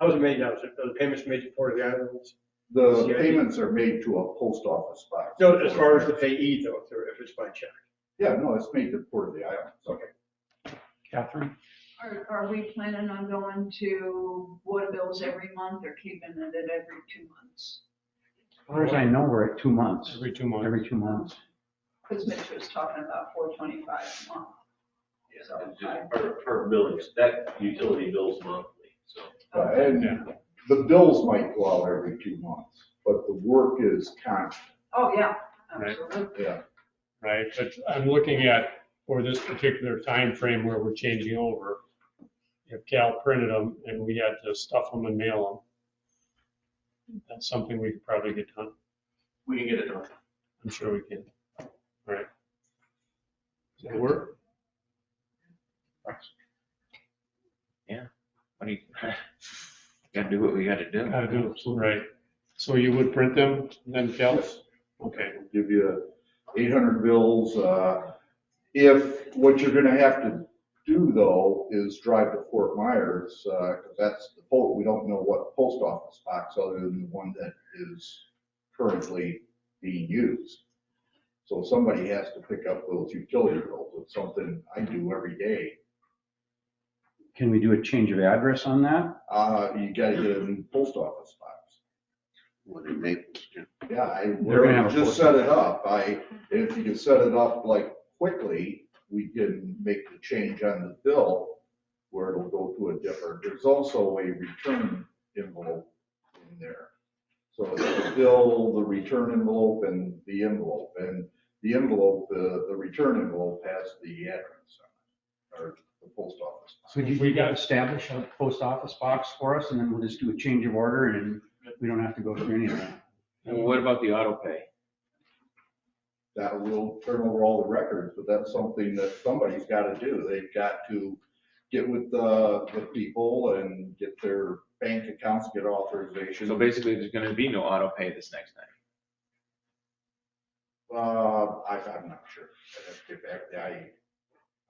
Those are made, now, so the payments made to Port of the Islands. The payments are made to a post office box. No, as far as the payee though, if they're- if it's by check. Yeah, no, it's made to Port of the Islands. Okay. Catherine? Are, are we planning on going to water bills every month or keeping it at every two months? As far as I know, we're at two months, Every two months. every two months. Because Mitch was talking about four twenty-five a month. Yeah, it's just per, per billing, that utility bill's monthly, so. Uh, And the bills might go out every two months, but the work is constant. Oh, yeah, Right. absolutely. Yeah. right? But I'm looking at, for this particular time frame where we're changing over, if Cal printed them and we had to stuff them and mail them, that's something we could probably get done. We can get it done. I'm sure we can. All right. Does that work? What do you, gotta do what we gotta do. How to do it, right? So you would print them, then Cal? Okay. We'll Give you 800 bills. uh, If, what you're going to have to do though is drive to Fort Myers, because that's the post, we don't know what post office box other than the one that is currently being used. So somebody has to pick up those utility bills. It's something I do every day. Can we do a change of address on that? Uh, You got to get a new post office box. What do you make? Yeah, I, They're gonna have a just post set it up. I, if you can set it up like quickly, we can make the change on the bill where it'll go to a different, there's also a return envelope in there. So the bill, the return envelope and the envelope, and the envelope, the, the return envelope has the address on it, or the post office. So you We you got- establish a post office box for us and then we'll just do a change of order and we don't have to go through any of that. And what about the auto pay? that will turn over all the records, but that's something that somebody's gotta do. They've got to get with the, the people and get their bank accounts, get authorization. So basically, there's gonna be no auto pay this next time. Uh, I, I'm not sure. I'd have to get back, I,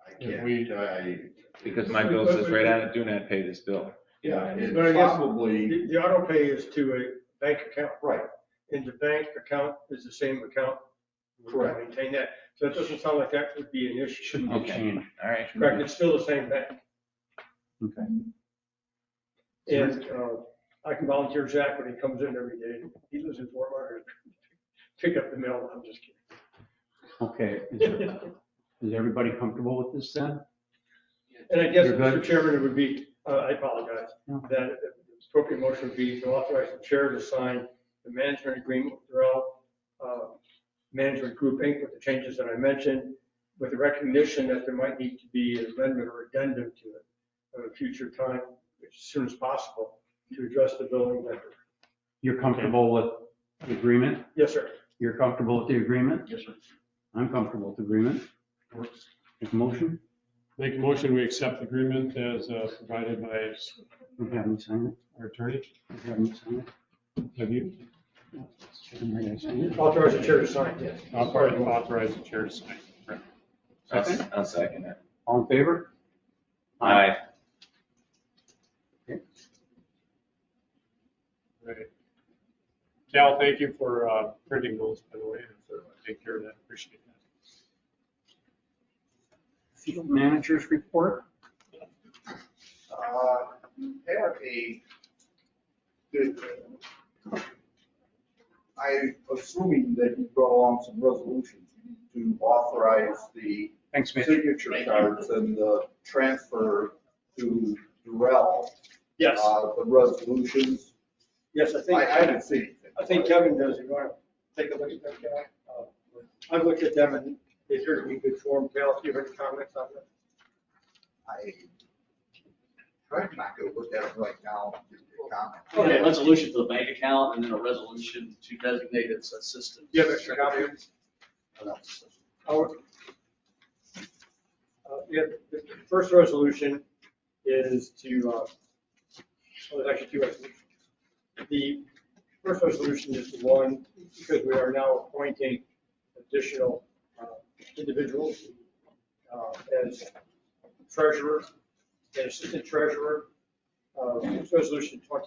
I If we- can't, I. Because my bill says right on it, do not pay this bill. Yeah, it's But I guess- probably, The the auto pay is to a bank account. right, And the bank account is the same account. We're gonna Correct. Maintain that. So it doesn't sound like that would be an issue. Shouldn't be Okay. changed. All right. Correct, it's still the same bank. Okay. And uh, I can volunteer Zach when he comes in every day. He lives in Fort Myers. Pick up the mail, I'm just Okay. Is kidding. is everybody comfortable with this then? And I guess, You're good? Mr. Chairman, it would be, uh, I apologize, No. that the appropriate motion would be to authorize the chair to sign the management agreement with Doral, uh Management Group Inc. with the changes that I mentioned, with the recognition that there might need to be an amendment or addendum to it at a future time, as soon as possible, to address the billing vendor. You're comfortable with the agreement? Yes, sir. You're comfortable with the agreement? Yes, sir. I'm comfortable with the agreement. Make a motion? Make a motion, we accept the agreement as uh, provided by Don't have me sign it. our attorney. Don't have me sign Have you? it. Am I gonna sign it. Authorize the chair to sign, yes. I'll probably uh, authorize the chair to sign. I'll, I'll second it. All in favor? Aye. Right. Cal, thank you for uh, printing those, by the way, and for taking care of that. Appreciate that. Field managers report? uh, have a, I assuming that you brought along some resolutions to authorize the Thanks, Mitch. signature cards and the transfer to Durrell. Yes, uh, The resolutions, yes, I I, think. I haven't seen. it. I think uh, Kevin does, you want to take a look at that, Cal? I've looked at them and they appear to be good form, Cal, if you have any comments on that. I, I'm not gonna look at it right now, give you a comment. Oh, Okay. Okay, resolution for the bank account and then a resolution to designate its assistant. Yeah, Mr. Copy. Howard? Uh, yeah, the the first resolution is to, uh, well, there's actually two resolutions. The first resolution is the one, because we are now appointing additional uh, individuals uh, as treasurer and assistant treasurer uh, it's resolution twenty